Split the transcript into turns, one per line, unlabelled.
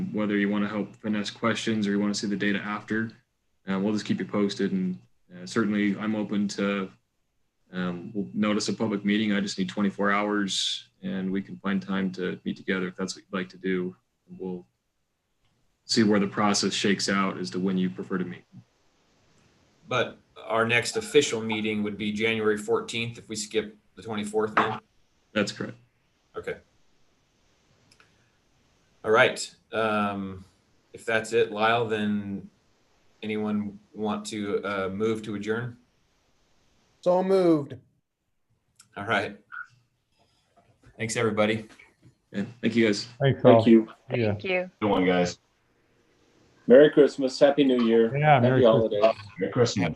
um, whether you want to help finesse questions or you want to see the data after. Um, we'll just keep you posted. And uh, certainly, I'm open to um, we'll notice a public meeting. I just need 24 hours and we can find time to meet together if that's what you'd like to do. And we'll see where the process shakes out as to when you prefer to meet.
But our next official meeting would be January fourteenth if we skip the twenty-fourth then?
That's correct.
Okay. All right. Um, if that's it, Lyle, then anyone want to, uh, move to adjourn?
So moved.
All right. Thanks, everybody.
And thank you guys.
Thanks all.
Thank you.
Yeah,
Thank you.
Good one, guys.
Merry Christmas, Happy New Year,
yeah. Merry
Happy
Christmas.
Holidays.
Merry Christmas.